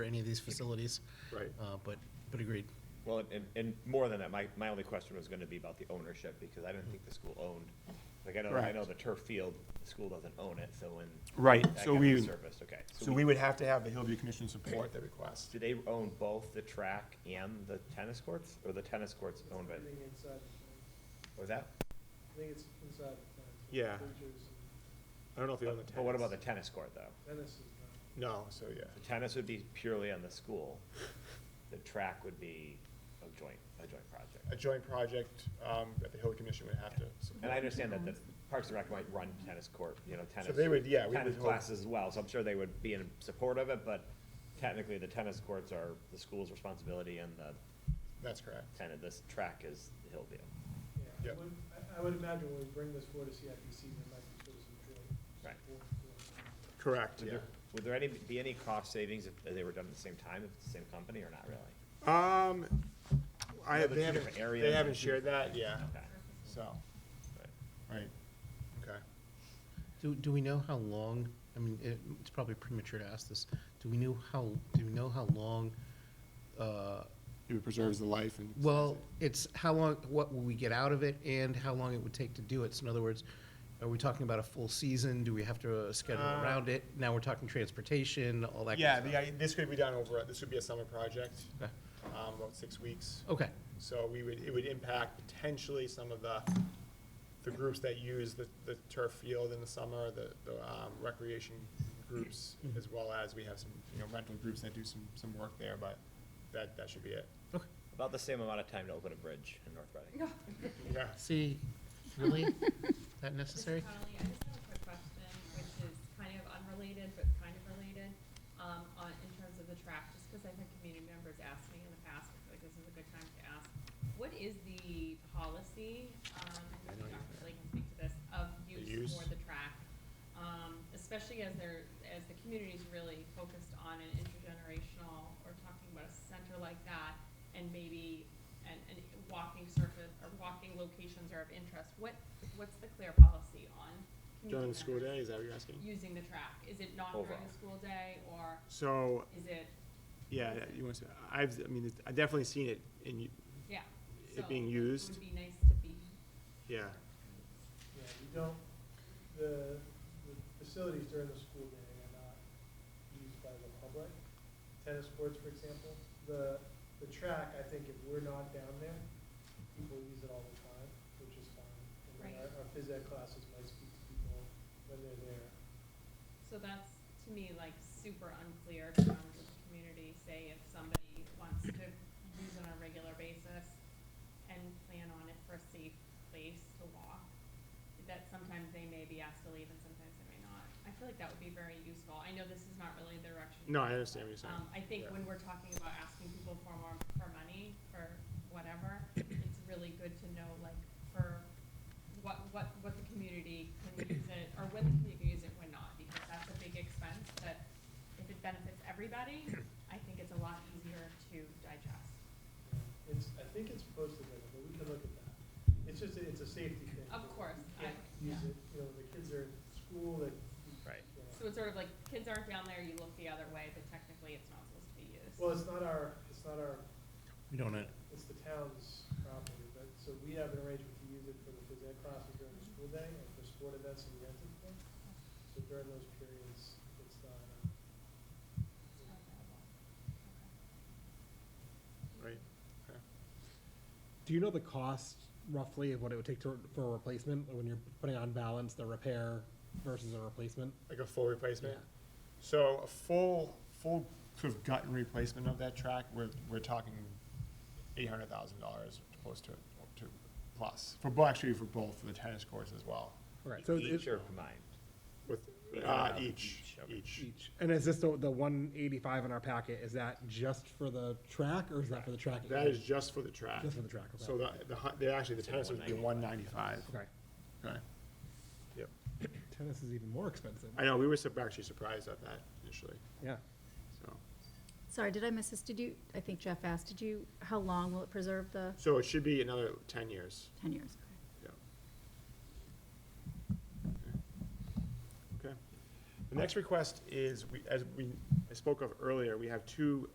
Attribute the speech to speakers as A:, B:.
A: for any of these facilities.
B: Right.
A: Uh, But, but agreed.
C: Well, and- and, and more than that, my, my only question was gonna be about the ownership, because I didn't think the school owned, like, I know, I
D: Correct.
C: know the turf field, the school doesn't own it, so when.
D: Right,
C: that
D: so
C: got
D: we-
C: resurfaced, okay.
D: So we would have to have the Hillview Commission support the request.
C: Do they own both the track and the tennis courts, or the tennis courts owned by,
E: I think inside the fence.
C: was that?
E: I think it's inside the fence. with
B: Yeah.
E: bleachers
B: I don't know if you own the tennis.
C: But what about the tennis court, though?
E: and Tennis is not.
B: No, so yeah.
C: The tennis would be purely on the school, the track would be a joint, a joint project.
D: A joint project um, that the Hillview Commission would have to support.
C: And I understand that the Parks and Rec might run tennis court, you know, tennis.
D: they would- yeah, we
C: Tennis
D: would hope-
C: classes as well, so I'm sure they would be in support of it, but technically the tennis courts are the school's responsibility and the
D: That's correct.
C: tenant, this track is Hillview.
E: Yeah,
D: Yep.
E: I would, I- I would imagine when we bring this forward to CIPC, there might be sort of some joint
C: Right.
E: support for it.
B: Correct,
C: Would
B: yeah.
C: there- Would there any, be any cost savings if they were done at the same time, if it's the same company or not really?
B: Um, I,
C: Yeah, but
B: they
C: two
B: haven't,
C: different
B: they
C: areas.
B: haven't shared that, yeah,
C: Okay.
D: So,
C: Right.
D: right, okay.
A: Do, do we know how long, I mean, it, it's probably premature to ask this, do we know how, do we know how long, uh,
D: It preserves the life and.
A: well, it's how long, what will we get out of it and how long it would take to do it? So in other words, are we talking about a full season? Do we have to uh, schedule
D: Uh,
A: around it? Now we're talking transportation, all that
D: Yeah,
A: kind of
D: the,
A: stuff.
D: I- this could be done over, this would be a summer project,
A: Okay.
D: um, about six weeks.
A: Okay,
D: So we would, it would impact potentially some of the, the groups that use the, the turf field in the summer, the, the um, recreation groups,
B: Mm-hmm.
D: as well as we have some, you know, rental groups that do some, some work there, but that, that should be it.
A: okay.
C: About the same amount of time to open a bridge in North Reading.
D: Yeah.
A: See, really? That necessary?
F: Mr. Connolly, I just have a quick question, which is kind of unrelated, but kind of related, um, on, in terms of the track, just because I've had community members ask me in the past, I feel like this is a good time to ask. What is the policy, um, and Dr. Blake can speak to this, of
D: use?
F: use for the track? Um, especially as they're, as the community's really focused on an intergenerational, or talking about a center like that, and maybe, and, and walking surface, or walking locations are of interest, what, what's the clear policy on?
D: During
F: community
D: the school
F: members
D: day, is that what you're asking?
F: Using the track, is it not during
C: Overall.
F: the school day, or
B: So,
F: is it,
B: yeah, you want to, I've, I mean, I've definitely seen it in, y-
F: yeah?
B: It
F: so
B: being
F: It
B: used?
F: would be nice to be,
B: yeah,
E: Yeah, you don't, the, the facilities during the school day are not used by the public. Tennis courts, for example, the, the track, I think if we're not down there, people use it all the time, which is fine. And then
F: Right.
E: Our, our phys ed classes might speak to people when they're there.
F: so that's, to me, like, super unclear to members of the community, say if somebody wants to use it on a regular basis and plan on it for a safe place to walk, that sometimes they may be asked to leave and sometimes they may not. I feel like that would be very useful, I know this is not really the direction.
B: no, I understand what you're saying.
F: Um, I think
B: Yeah.
F: when we're talking about asking people for more, for money, for whatever, it's really good to know, like, for what, what, what the community can use it, or when the community can use it, when not, because that's a big expense that if it benefits everybody, I think it's a lot easier to digest.
E: It's, I think it's posted there, but we can look at that. It's just, a- it's a safety thing.
F: Of course,
E: You can't
F: I-
E: Use
F: yeah.
E: it, you know, the kids are in school, like.
C: Right.
E: yeah.
F: So it's sort of like, kids aren't down there, you look the other way, but technically it's not supposed to be used.
E: Well, it's not our, it's not our
A: We don't know.
E: it's the town's property, but, so we have an arrangement to use it for the phys ed classes during the school day and for sport events and rent it. for. So during those periods, it's not, uh,
F: It's not available.
B: Right,
G: Do you know the cost roughly of what it would take to, for a replacement, when you're putting on balance the repair versus a replacement?
D: Like a full replacement?
G: Yeah.
D: So a full, full sort of gut replacement of that track, we're, we're talking eight hundred thousand dollars close to, to plus. For, bo- actually for both, for the tennis courts as well.
G: Right, so
C: Each
G: it's
C: or combined?
D: With, uh,
C: Yeah.
D: each,
C: Each, okay.
D: each.
G: each, and is this the, the one eighty-five in our packet, is that just for the track, or is that for the track?
D: That is just for the track.
G: Just for the track, okay.
D: So the, the, hu- they actually, the tennis would be one ninety-five.
G: Okay,
D: Okay. Yep.
G: tennis is even more expensive,
D: I know, we were sup- actually surprised at that initially,
G: yeah.
D: so.
H: Sorry, did I miss this? Did you, I think Jeff asked, did you, how long will it preserve the
D: So it should be another ten years.
H: ten years?
D: Yep. Okay. Okay. The next request is, we, as we, I spoke of earlier, we have two